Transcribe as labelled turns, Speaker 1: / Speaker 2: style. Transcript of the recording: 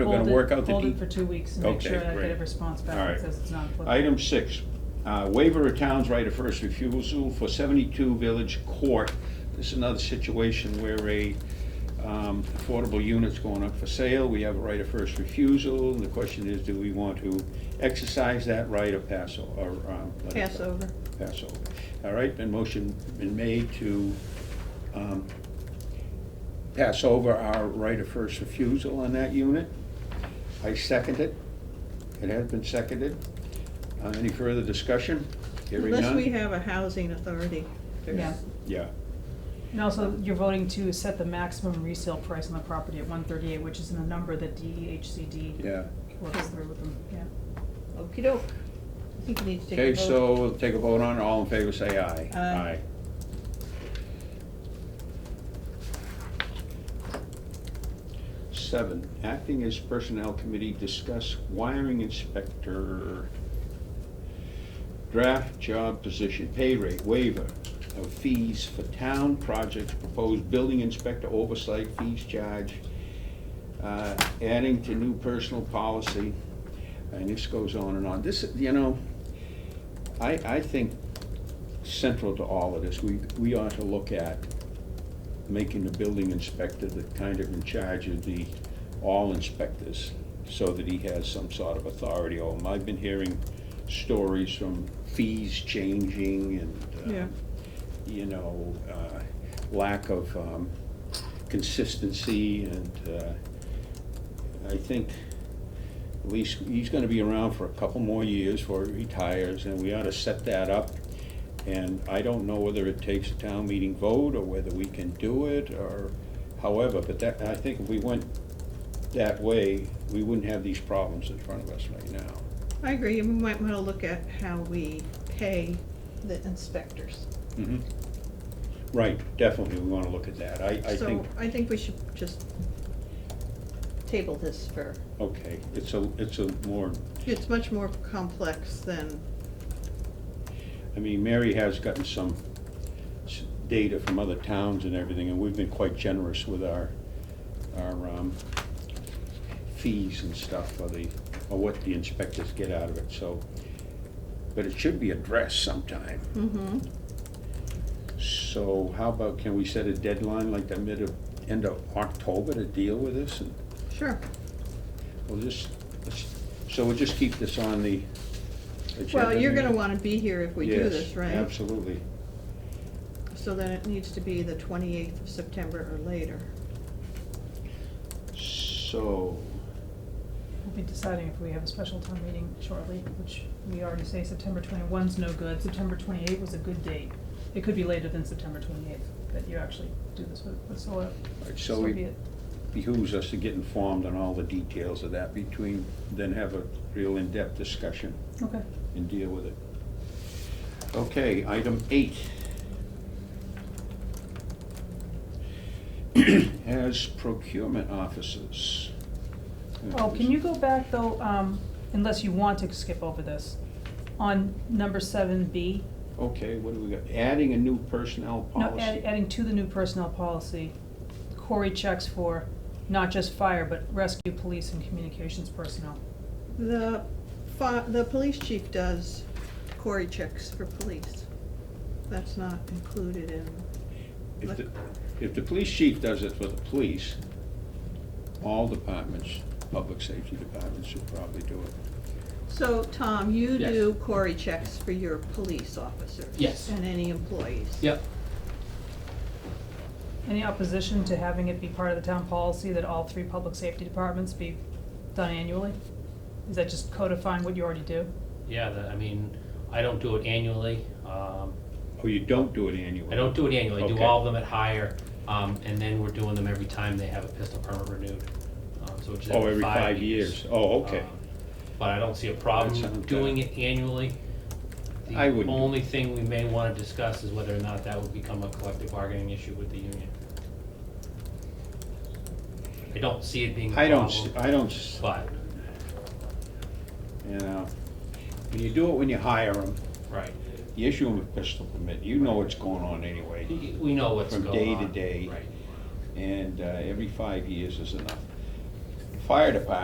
Speaker 1: We're gonna
Speaker 2: Hold it-
Speaker 1: work out the
Speaker 2: Hold it for
Speaker 1: de-
Speaker 2: two weeks and make
Speaker 1: Okay,
Speaker 2: sure I
Speaker 1: great.
Speaker 2: get a response
Speaker 1: All
Speaker 2: back
Speaker 1: right.
Speaker 2: that says it's not applicable.
Speaker 1: Item six, uh, waiver of town's right of first refusal for 72 Village Court. This is another situation where a um, affordable unit's going up for sale. We have a right of first refusal. And the question is, do we want to exercise that right or pass o- or? um, let it go?
Speaker 3: Pass over.
Speaker 1: Pass over. All right, been motion been made to um, pass over our right of first refusal on that unit. I second it. It has been seconded. Uh, Any further discussion? Hearing
Speaker 3: Unless
Speaker 1: none?
Speaker 3: we have a housing authority. there's-
Speaker 2: Yeah.
Speaker 1: Yeah,
Speaker 2: And also, you're voting to set the maximum resale price on the property at one thirty-eight, which is the number that E DHCD
Speaker 1: yeah.
Speaker 2: works through with them, yeah.
Speaker 3: Okey-doke. I think you need to take a
Speaker 1: Okay,
Speaker 3: vote.
Speaker 1: so we'll take a vote on it. All in favor, say aye.
Speaker 3: Aye.
Speaker 1: Seven, acting as personnel committee, discuss wiring inspector. Draft job position, pay rate waiver of fees for town projects, proposed building inspector oversight fees charge. uh, Adding to new personal policy, and this goes on and on. This, you know, I, I think central to all of this, we, we ought to look at making the building inspector the kind of in charge of the, all inspectors, so that he has some sort of authority over them. I've been hearing stories from fees changing and,
Speaker 3: Yeah.
Speaker 1: uh, you know, uh, lack of um, consistency and, uh, I think at least he's gonna be around for a couple more years before he retires, and we ought to set that up. And I don't know whether it takes a town meeting vote, or whether we can do it, or however, but that, I think if we went that way, we wouldn't have these problems in front of us right now.
Speaker 3: I agree, and we might wanna look at how we pay the inspectors.
Speaker 1: Mhm. Right, definitely, we wanna look at that, I, I think,
Speaker 3: So I think we should just table this for,
Speaker 1: okay, it's a, it's a more
Speaker 3: it's much more complex than,
Speaker 1: I mean, Mary has gotten some s- data from other towns and everything, and we've been quite generous with our, our um, fees and stuff for the, or what the inspectors get out of it, so. But it should be addressed sometime.
Speaker 3: mm-hmm,
Speaker 1: So how about, can we set a deadline like the mid of, end of October to deal with this? And
Speaker 3: sure.
Speaker 1: We'll just, let's- so we'll just keep this on the agenda.
Speaker 3: Well, you're gonna
Speaker 1: now?
Speaker 3: wanna be here if we do
Speaker 1: Yes,
Speaker 3: this, right?
Speaker 1: Absolutely.
Speaker 3: So then it needs to be the twenty-eighth of September or later.
Speaker 1: So,
Speaker 2: We'll be deciding if we have a special town meeting shortly, which we already say September 21 is no good, September twenty-eight was a good date. It could be later than September twenty-eighth, that you actually do this with, with solar.
Speaker 1: Right, so
Speaker 2: be
Speaker 1: it
Speaker 2: it.
Speaker 1: behooves us to get informed on all the details of that between, then have a real in-depth discussion
Speaker 2: Okay.
Speaker 1: and deal with it. Okay, item eight. As procurement officers.
Speaker 2: Oh, can you go back though, um, unless you want to skip over this, on number seven B?
Speaker 1: Okay, what do we got? Adding a new personnel
Speaker 2: No, add-
Speaker 1: policy.
Speaker 2: adding to the new personnel policy, Corey checks for not just fire, but rescue, police, and communications personnel.
Speaker 3: The fi- the police chief does Cory checks for police. That's not included in,
Speaker 1: If the, if the police chief does it for the police, all departments, public safety departments should probably do it.
Speaker 3: so Tom, you
Speaker 4: Yes.
Speaker 3: do Cory checks for your police officers?
Speaker 4: Yes.
Speaker 3: And any employees?
Speaker 4: Yep.
Speaker 2: Any opposition to having it be part of the town policy that all three public safety departments be done annually? Is that just codifying what you already do?
Speaker 4: Yeah, the- I mean, I don't do it annually. Um,
Speaker 1: Oh, you don't do it annually?
Speaker 4: I don't do it annually, I do
Speaker 1: Okay.
Speaker 4: all of them at higher. Um, and then we're doing them every time they have a pistol permit renewed. Um, so it's
Speaker 1: Oh,
Speaker 4: every five years.
Speaker 1: Oh, okay.
Speaker 4: Um, But I don't see a
Speaker 1: That sounds
Speaker 4: problem doing it annually.
Speaker 1: I wouldn't.
Speaker 4: The only thing we may wanna discuss is whether or not that would become a collective bargaining issue with the union. I don't see it being a
Speaker 1: I
Speaker 4: problem.
Speaker 1: don't, s- I don't, s-
Speaker 4: But,
Speaker 1: you know, when you do it when you hire them,
Speaker 4: right,
Speaker 1: you issue them a pistol permit, you know what's going on anyway.
Speaker 4: we we know what's
Speaker 1: From
Speaker 4: going on.
Speaker 1: day to day.
Speaker 4: Right.
Speaker 1: And uh, every five years is enough. Fire department